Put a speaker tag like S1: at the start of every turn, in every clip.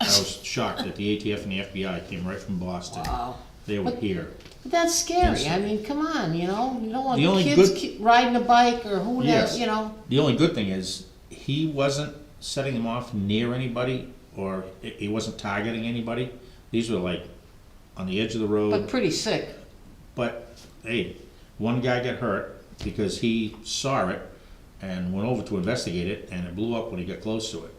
S1: I was shocked that the ATF and the FBI came right from Boston.
S2: Wow.
S1: They were here.
S2: But That's scary,
S1: Yes.
S2: I mean, come on, you know, you don't want
S1: The
S2: the
S1: only
S2: kids
S1: good-
S2: ki- riding a bike or who knows,
S1: Yes.
S2: you know?
S1: The only good thing is, he wasn't setting them off near anybody, or he- he wasn't targeting anybody. These were like on the edge of the
S2: But
S1: road,
S2: pretty sick,
S1: but hey, one guy got hurt because he saw it and went over to investigate it, and it blew up when he got close to it.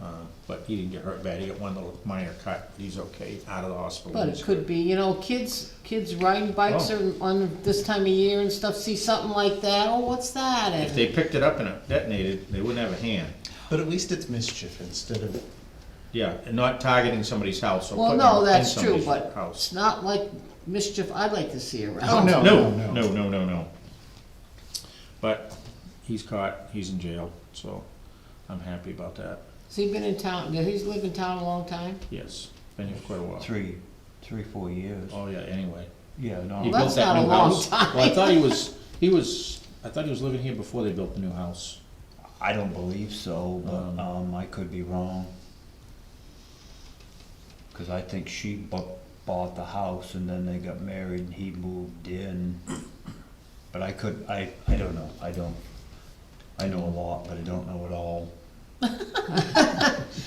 S1: Uh, But he didn't get hurt bad, he got one little minor cut, he's okay, out of the hospital.
S2: but it could be, you know, kids, kids riding bikes
S1: Oh.
S2: or on this time of year and stuff, see something like that, oh, what's that? And-
S1: If they picked it up and it detonated, they wouldn't have a hand.
S3: But at least it's mischief instead of,
S1: Yeah, and not targeting somebody's house or
S2: Well,
S1: putting
S2: no,
S1: it in
S2: that's true,
S1: somebody's
S2: but it's
S1: house.
S2: not like mischief I'd like to see around.
S3: Oh, no.
S1: No, no, no, no, no. But he's caught, he's in jail, so I'm happy about that,
S2: Has he been in town, did he live in town a long time?
S1: yes, been here quite a while.
S4: three, three, four years.
S1: Oh, yeah, anyway.
S4: Yeah,
S1: He
S4: no,
S2: Well, that's
S1: built that
S2: not a
S1: new
S2: long
S1: house.
S2: time.
S1: Well, I thought he was, he was, I thought he was living here before they built the new house.
S4: I don't believe so,
S1: Um,
S4: but, um, I could be wrong. Cause I think she bu- bought the house and then they got married and he moved in. But I could, I, I don't know, I don't, I know a lot, but I don't know it all.
S5: Either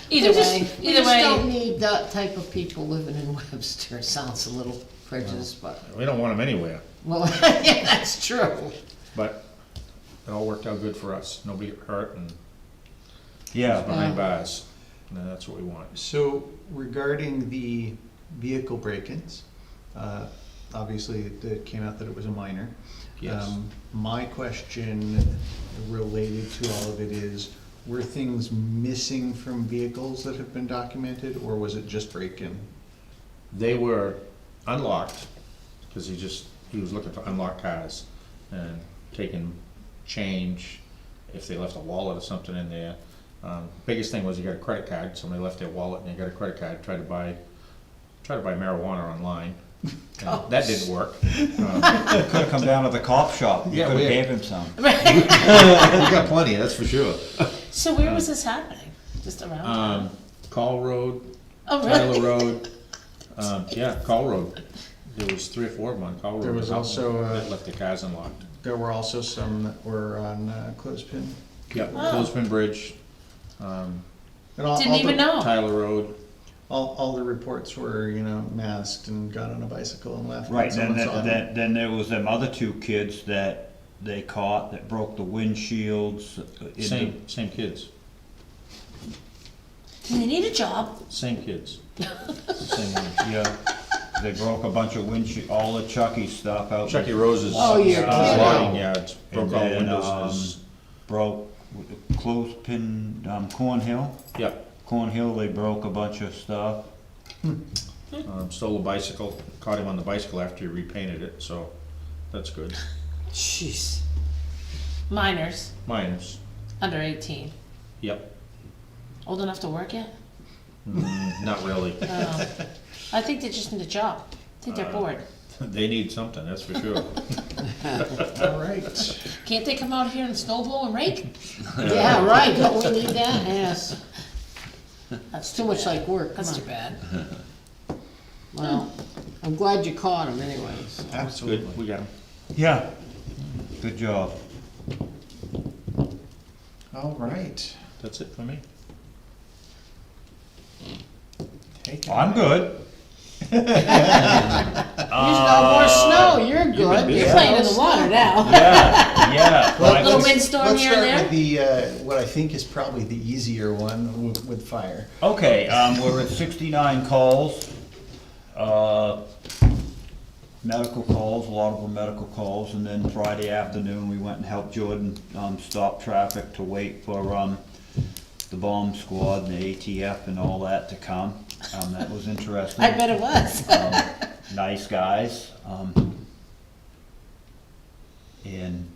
S2: We just-
S5: way,
S2: We
S5: either
S2: just don't
S5: way,
S2: need that type of people living in Webster, sounds a little prejudiced, but,
S1: We don't want him anywhere,
S2: well, yeah, that's true.
S1: but it all worked out good for us, nobody got hurt and he's
S4: Yeah,
S1: behind bars, and that's what we want.
S3: so regarding the vehicle break-ins, uh, obviously it came out that it was a minor.
S1: Yes.
S3: Um, My question related to all of it is, were things missing from vehicles that have been documented, or was it just break-in?
S1: they were unlocked, because he just, he was looking for unlocked cars, and taking change, if they left a wallet or something in there. Um, biggest thing was he got a credit card, somebody left their wallet and they got a credit card, tried to buy, tried to buy marijuana online. And That didn't work. Um,
S4: could've come down to the cop shop, you
S1: Yeah,
S4: could've
S1: we-
S4: gave him some.
S1: We got plenty, that's for sure.
S5: so where was this happening? Just around?
S3: Uh,
S5: town?
S1: Um, Call Road,
S5: Oh,
S1: Tyler
S5: really?
S1: Road, um, yeah, Call Road. There was three or four of them on Call Road.
S3: There was also, uh,
S1: That left their cars unlocked.
S3: There were also some that were on uh, clothespin.
S1: Yeah,
S5: Wow.
S1: Clothespin Bridge, um,
S3: And all-
S5: Didn't
S3: all the-
S5: even know.
S1: Tyler Road.
S3: All, all the reports were, you know, masked and got on a bicycle and left.
S4: Right,
S3: and
S4: then,
S3: someone saw
S4: then,
S3: them.
S4: then, then there was them other two kids that they caught that broke the windshields. uh, in the-
S1: Same, same kids,
S5: Do they need a job?
S1: same kids. Same one.
S4: Yeah, they broke a bunch of windshield, all the Chucky stuff out.
S1: Chucky E. Rose's. uh,
S2: Oh, you're kidding.
S1: Logging yards,
S4: And
S1: broke all the
S4: then,
S1: windows.
S4: um,
S1: in his-
S4: Broke with the clothespin, um, Cornhill,
S1: Yeah,
S4: Cornhill, they broke a bunch of stuff.
S1: um, stole a bicycle, caught him on the bicycle after he repainted it, so that's good.
S2: Jeez.
S5: Minors,
S1: Minors,
S5: under eighteen,
S1: yep,
S5: old enough to work yet?
S1: Mm, not really.
S5: Um, I think they just need a job. I think
S3: Uh,
S5: they're bored.
S1: They need something, that's for sure.
S3: All right.
S5: Can't they come out here and snowball and rake?
S2: Yeah, right, don't we need that? Yes. That's too much like work, come
S5: That's too
S2: on.
S5: bad.
S2: Well, I'm glad you caught him anyways.
S1: Good, we got him.
S4: Yeah. Good job.
S3: All right.
S1: That's it for me.
S3: Take it.
S4: I'm good.
S2: There's no more snow, you're
S1: you've been
S2: good.
S1: busy.
S2: You're playing in the water now.
S4: Yeah, yeah.
S3: Well,
S4: I
S3: let's-
S5: Little
S4: was-
S5: windstorm here and
S3: Let's
S5: there?
S3: start with the, uh, what I think is probably the easier one with, with fire.
S4: Okay, um, we're at sixty-nine calls. Uh, medical calls, a lot of them medical calls, and then Friday afternoon, we went and helped Jordan, um, stop traffic to wait for, um, the bomb squad and the ATF and all that to come. Um, that was interesting.
S5: I bet it was.
S4: Um, Nice guys, um, and,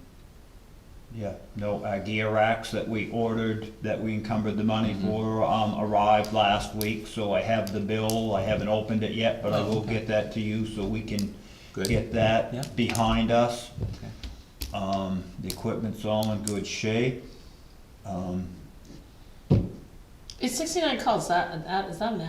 S4: yeah, no, our gear racks that we ordered, that we encumbered the money
S1: Mm-hmm.
S4: for, um, arrived last week, so I have the bill, I haven't opened it yet, but I will get that to you, so we can
S1: Oh, Good.
S4: get
S1: Yeah.
S4: that behind us. Um, the equipment's all in good shape, um,
S5: Is sixty-nine calls that, that, is that an